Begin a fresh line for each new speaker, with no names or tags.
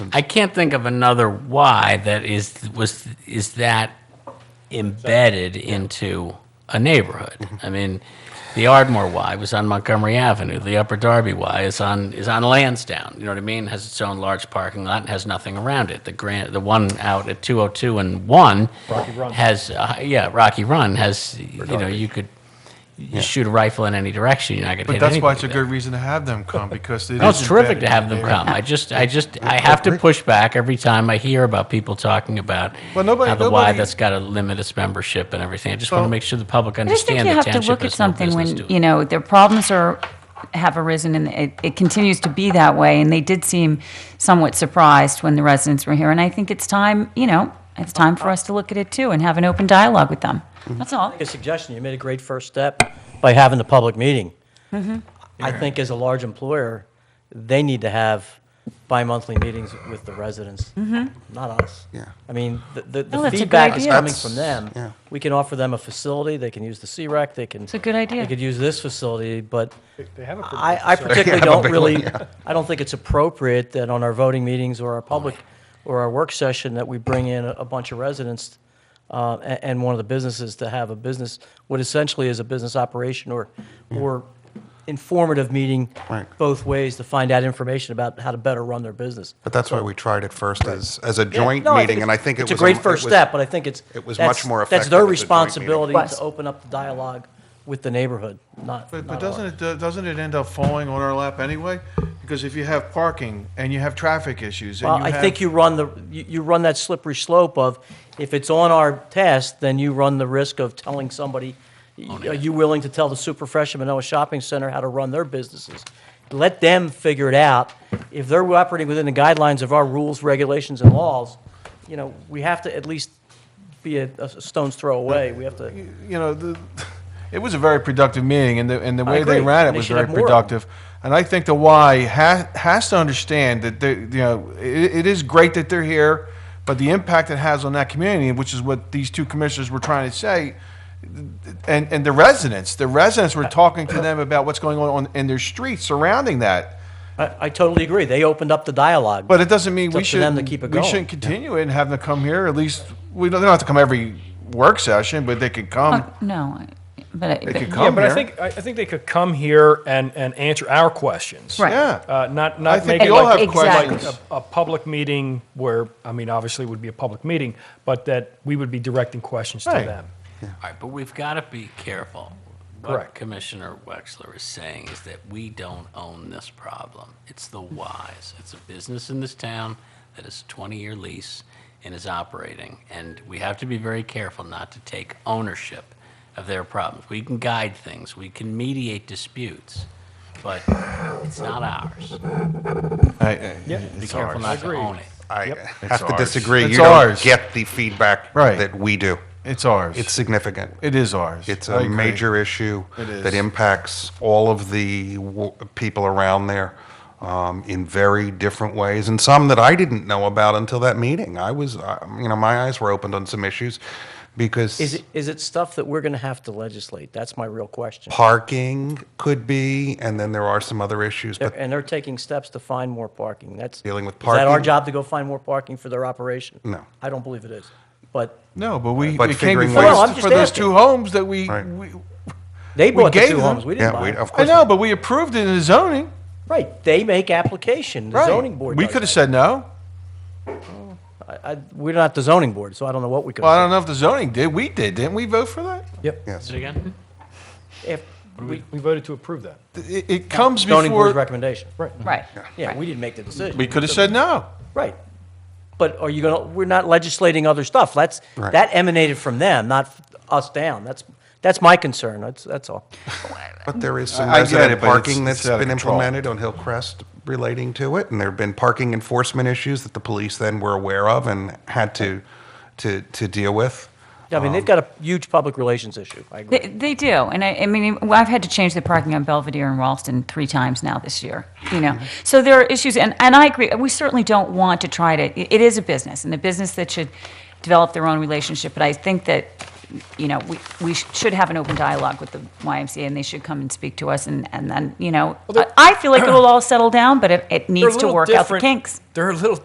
I can't think of another why that is was is that embedded into a neighborhood. I mean, the Ardmore Y was on Montgomery Avenue. The Upper Darby Y is on is on Lansdowne. You know what I mean? Has its own large parking lot and has nothing around it. The grand the one out at 202 and one
Rocky Run.
has uh, yeah Rocky Run has you know you could you shoot a rifle in any direction. You're not going to
But
hit
that's why it's a
anybody
good reason to have them come because it is.
no, it's terrific
embedded
to have
in the
them
neighborhood.
come. I just, I just, I have to push back every time I hear about people talking about
Well, nobody-
how the Y
nobody-
that's got to limit its membership and everything. I just want to
Well-
make sure the public
I just think
understand
you
the
have to
township
look at
has no
something
business
when, you
doing.
know, their problems are, have arisen and it, it continues to be that way. And they did seem somewhat surprised when the residents were here. And I think it's time, you know, it's time for us to look at it too and have an open dialogue with them. That's all.
a suggestion, you made a great first step by having the public meeting.
Mm-hmm.
I think as a large employer, they need to have bi-monthly meetings with the residents, not us.
Yeah.
I mean, the- the,
No,
the
Mm-hmm. that's a good
feedback is
idea.
coming
That's-
from them.
yeah.
We can offer them a facility, they can use the C-Rec, they can.
It's a good idea.
They could use this facility, but
They have a pretty
I,
good
I
facility.
particularly
Yeah,
don't
big
really,
one, yeah.
I don't think it's appropriate that on our voting meetings or our public, or our work session, that we bring in a a bunch of residents uh, a- and one of the businesses to have a business, what essentially is a business operation or, or informative meeting
Right.
both ways to find out information about how to better run their business.
But that's why we tried it first as, as a
Yeah,
joint
no,
meeting,
it's-
and I think it was.
It's a great
it
first
was-
step, but I think it's.
it was
that's-
much more
That's their
effective as a joint meeting.
responsibility
Was.
to open up the dialogue with the neighborhood, not.
But,
not
but
ours.
doesn't it, do- doesn't it end up falling on our lap anyway? Because if you have parking and you have traffic issues and
Well,
you
I
have-
think you run the, you, you run that slippery slope of, if it's on our test, then you run the risk of telling somebody,
Oh,
are you willing to tell the super fresh of Manoa Shopping Center how to run their businesses? Let them figure it out. If they're operating within the guidelines of our rules, regulations, and laws, you know, we have to at least be a, a stone's throw away. We have to.
you know, the, it was a very productive meeting, and the, and the way they
agree.
ran it
They
was
should
very
have more of 'em.
productive. And I think the Y has, has to understand that they, you know it, it is great that they're here, but the impact it has on that community, which is what these two commissioners were trying to say, and and the residents, the residents were talking to them about what's going on, on in their streets surrounding that.
I, I totally agree. They opened up the dialogue.
But it doesn't mean
It's
we
up to them
shouldn't,
to keep it
we
going.
shouldn't continue it and have them come here. At least we don't, they don't have to come every work session, but they could come.
Fuck, No, I- but,
They
but
could
Yeah,
come
but I
here.
think, I I think they could come here and, and answer our questions.
Right.
Yeah.
Uh, Not,
I
not
think
make it
we all
like
have
Exactly.
questions.
a, a public meeting where, I mean, obviously it would be a public meeting, but that we would be directing questions to
Right.
them.
All right, but we've got to be careful. What
Correct.
Commissioner Wexler is saying is that we don't own this problem. It's the Ys. It's a business in this town that is a 20-year lease and is operating, and we have to be very careful not to take ownership of their problems. We can guide things, we can mediate disputes, but it's not ours.
I- I-
Be careful not to own it.
I
It's
have to
ours.
disagree.
It's
You don't
ours.
get the feedback
Right.
that we do.
It's ours.
It's significant.
It is ours.
It's
I
a
agree.
major issue
It is.
that impacts all of the w- people around there um, in very different ways, and some that I didn't know about until that meeting. I was, uh, you know, my eyes were opened on some issues because
Is it, is it stuff that we're going to have to legislate? That's my real question.
parking could be, and then there are some other issues.
They're-
But
And they're taking steps to find more parking. That's.
Dealing with
Is that our
parking?
job to go find more parking for their operation?
No.
I don't believe it is. But
No, but we,
But
it came
figuring
before
ways-
No,
us
I'm
for
just
those
asking.
two homes that we,
Right.
we
they bought the
gave
two
them-
homes. We didn't
yeah,
buy
we,
them.
of
I
course.
know, but we approved it in the zoning.
Right. They make application. The
Right.
zoning board
We
does
could have
that.
said no.
I- I- We're not the zoning board, so I don't know what we could
Well, I
have
don't know if the zoning did. We did, didn't we? Vote for that.
Yep.
Yes.
Say it again?
said. If we,
We we voted to approve that.
It, it comes
zoning board's
before.
recommendation.
Right.
right.
Yeah, we didn't make the decision.
We could have said no.
Right. But are you gonna, we're not legislating other stuff. That's,
Right.
that emanated from them, not us down. That's, that's my concern. That's, that's all.
But there is some
I- I get it,
resident
but it's-
parking
it's
that's
out of
been
control.
implemented on Hillcrest relating to it, and there have been parking enforcement issues that the police then were aware of and had to, to, to deal with.
I mean, they've got a huge public relations issue. I agree.
They, they do, and I, I mean, well, I've had to change the parking on Belvedere and Ralston three times now this year. You know,
Mm-hmm.
so there are issues, and, and I agree. We certainly don't want to try to. It is a business, and a business that should develop their own relationship. But I think that you know we, we sh- should have an open dialogue with the YMCA, and they should come and speak to us, and, and then you know I, I feel like it will all settle down, but it, it
They're a
needs to
little
work out the
different-
kinks.
They're a little